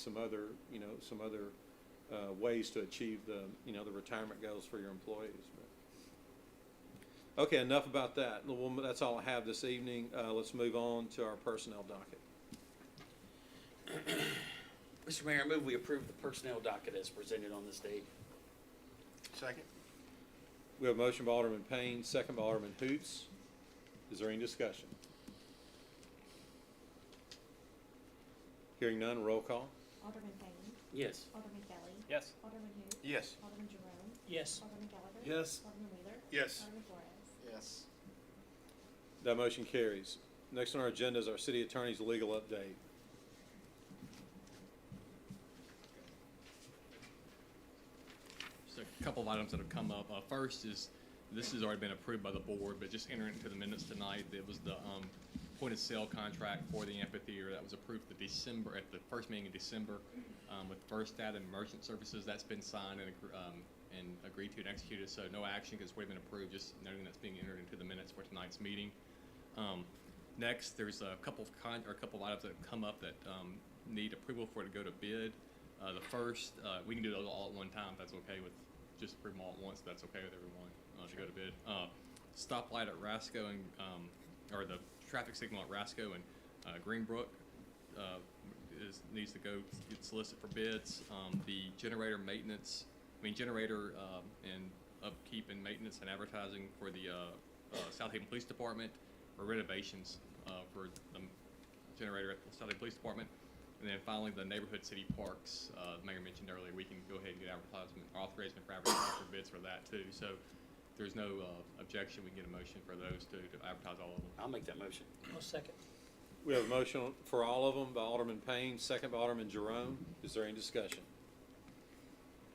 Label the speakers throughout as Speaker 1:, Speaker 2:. Speaker 1: some other, you know, some other uh, ways to achieve the, you know, the retirement goals for your employees. but- Okay, enough about that. Well, That's all I have this evening. Uh, Let's move on to our personnel docket.
Speaker 2: Mr. Mayor, I move we approve the personnel docket as presented on this date.
Speaker 3: Second.
Speaker 1: We have a motion by Alderman Payne, second by Alderman Hoots. Is there any discussion? Hearing none, roll call.
Speaker 4: Alderman Payne.
Speaker 2: Yes.
Speaker 4: Alderman Kelly.
Speaker 5: Yes.
Speaker 4: Alderman who?
Speaker 3: Yes.
Speaker 4: Alderman Jerome.
Speaker 5: Yes.
Speaker 4: Alderman Gallagher.
Speaker 5: Yes.
Speaker 4: Alderman Wheeler.
Speaker 3: Yes.
Speaker 4: Alderman Flores.
Speaker 3: Yes.
Speaker 1: That motion carries. Next on our agenda is our city attorney's legal update.
Speaker 6: Just a couple of items that have come up. Uh, first is, this has already been approved by the board, but just entering into the minutes tonight, it was the, um, point of sale contract for the amphitheater that was approved the December, at the first meeting in December, um, with First Data and Merchant Services. That's been signed and, agr- um, and agreed to and executed, so no action because it's already been approved, just noting that's being entered into the minutes for tonight's meeting. Um, next, there's a couple of con, or a couple of items that have come up that, um, need approval for it to go to bid. Uh, the first, uh, we can do those all at one time, if that's okay with, just approve them all at once, if that's okay with everyone, uh, to go to bid. Uh, stoplight at Rasco and, um, or the traffic signal at Rasco and, uh, Greenbrook, uh, is, needs to go, get solicited for bids. Um, the generator maintenance, I mean, generator, um, and upkeep and maintenance and advertising for the, uh, uh, South Haven Police Department, or renovations, uh, for the generator at the Southern Police Department. And then finally, the neighborhood city parks, uh, the mayor mentioned earlier, we can go ahead and get advertisement, authorization for advertising for bids for that too. So if there's no, uh, objection, we can get a motion for those two to advertise all of them.
Speaker 2: I'll make that motion.
Speaker 5: I'll second.
Speaker 1: We have a motion for all of them by Alderman Payne, second by Alderman Jerome. Is there any discussion?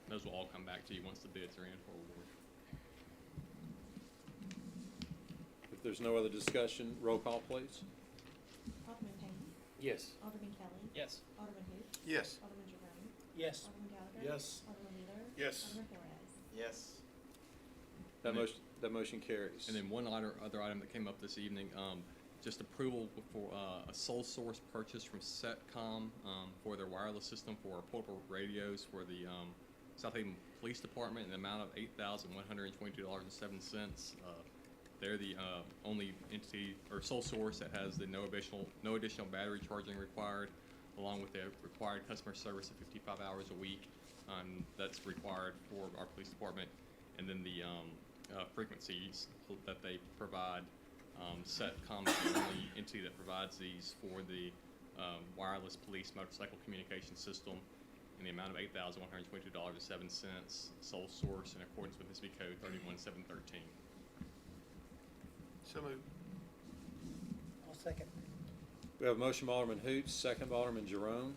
Speaker 6: Those will all come back to you once the bids are in for award.
Speaker 1: If there's no other discussion, roll call, please.
Speaker 4: Alderman Payne.
Speaker 2: Yes.
Speaker 4: Alderman Kelly.
Speaker 5: Yes.
Speaker 4: Alderman who?
Speaker 3: Yes.
Speaker 4: Alderman Jerome.
Speaker 5: Yes.
Speaker 4: Alderman Gallagher.
Speaker 5: Yes.
Speaker 4: Alderman Wheeler.
Speaker 3: Yes.
Speaker 4: Alderman Flores.
Speaker 3: Yes.
Speaker 1: That
Speaker 6: And then-
Speaker 1: motion, that motion carries.
Speaker 6: And then one other, other item that came up this evening, um, just approval for, uh, a sole source purchase from Setcom, um, for their wireless system for our portable radios for the, um, South Haven Police Department in the amount of eight thousand one hundred and twenty-two dollars and seven cents. Uh, they're the, uh, only entity or sole source that has the no additional, no additional battery charging required, along with the required customer service of fifty-five hours a week. Um, that's required for our police department. And then the, um, uh, frequencies that they provide, um, Setcom is the only entity that provides these for the, um, wireless police motorcycle communication system in the amount of eight thousand one hundred twenty-two dollars and seven cents, sole source in accordance with SB Code thirty-one seven thirteen.
Speaker 3: So moved.
Speaker 5: I'll second.
Speaker 1: We have a motion by Alderman Hoots, second by Alderman Jerome.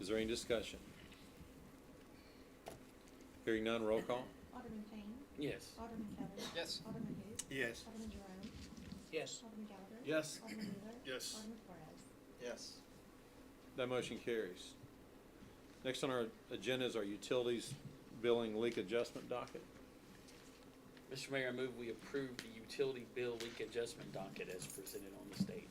Speaker 1: Is there any discussion? Hearing none, roll call.
Speaker 4: Alderman Payne.
Speaker 2: Yes.
Speaker 4: Alderman Kelly.
Speaker 5: Yes.
Speaker 4: Alderman who?
Speaker 3: Yes.
Speaker 4: Alderman Jerome.
Speaker 5: Yes.
Speaker 4: Alderman Gallagher.
Speaker 5: Yes.
Speaker 4: Alderman Wheeler.
Speaker 3: Yes.
Speaker 4: Alderman Flores.
Speaker 3: Yes.
Speaker 1: That motion carries. Next on our agenda is our utilities billing leak adjustment docket.
Speaker 2: Mr. Mayor, I move we approve the utility bill leak adjustment docket as presented on this date.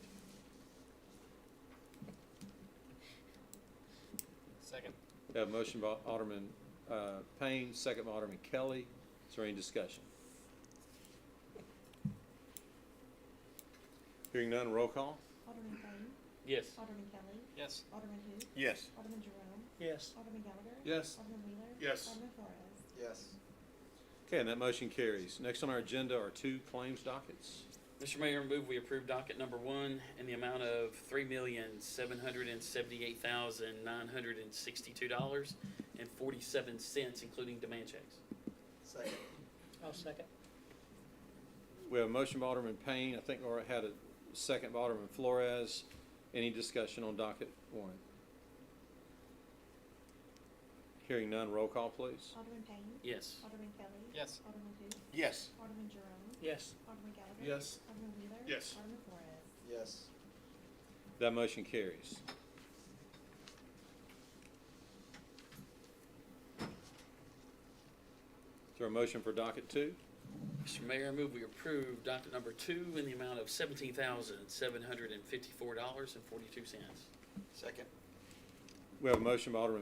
Speaker 5: Second.
Speaker 1: We have a motion by Alderman uh, Payne, second by Alderman Kelly. Is there any discussion? Hearing none, roll call.
Speaker 4: Alderman Payne.
Speaker 2: Yes.
Speaker 4: Alderman Kelly.
Speaker 5: Yes.
Speaker 4: Alderman who?
Speaker 3: Yes.
Speaker 4: Alderman Jerome.
Speaker 5: Yes.
Speaker 4: Alderman Gallagher.
Speaker 1: Yes.
Speaker 4: Alderman Wheeler.
Speaker 3: Yes.
Speaker 4: Alderman Flores.
Speaker 3: Yes.
Speaker 1: Okay, and that motion carries. Next on our agenda are two claims dockets.
Speaker 2: Mr. Mayor, I move we approve docket number one in the amount of three million, seven hundred and seventy-eight thousand, nine hundred and sixty-two dollars and forty-seven cents, including demand checks.
Speaker 3: Second.
Speaker 5: I'll second.
Speaker 1: We have a motion by Alderman Payne. I think Laura had a second by Alderman Flores. Any discussion on docket one? Hearing none, roll call, please.
Speaker 4: Alderman Payne.
Speaker 2: Yes.
Speaker 4: Alderman Kelly.
Speaker 5: Yes.
Speaker 4: Alderman who?
Speaker 3: Yes.
Speaker 4: Alderman Jerome.
Speaker 5: Yes.
Speaker 4: Alderman Gallagher.
Speaker 5: Yes.
Speaker 4: Alderman Wheeler.
Speaker 3: Yes.
Speaker 4: Alderman Flores.
Speaker 3: Yes.
Speaker 1: That motion carries. Is there a motion for docket two?
Speaker 2: Mr. Mayor, I move we approve docket number two in the amount of seventeen thousand, seven hundred and fifty-four dollars and forty-two cents.
Speaker 3: Second.
Speaker 1: We have a motion by Alderman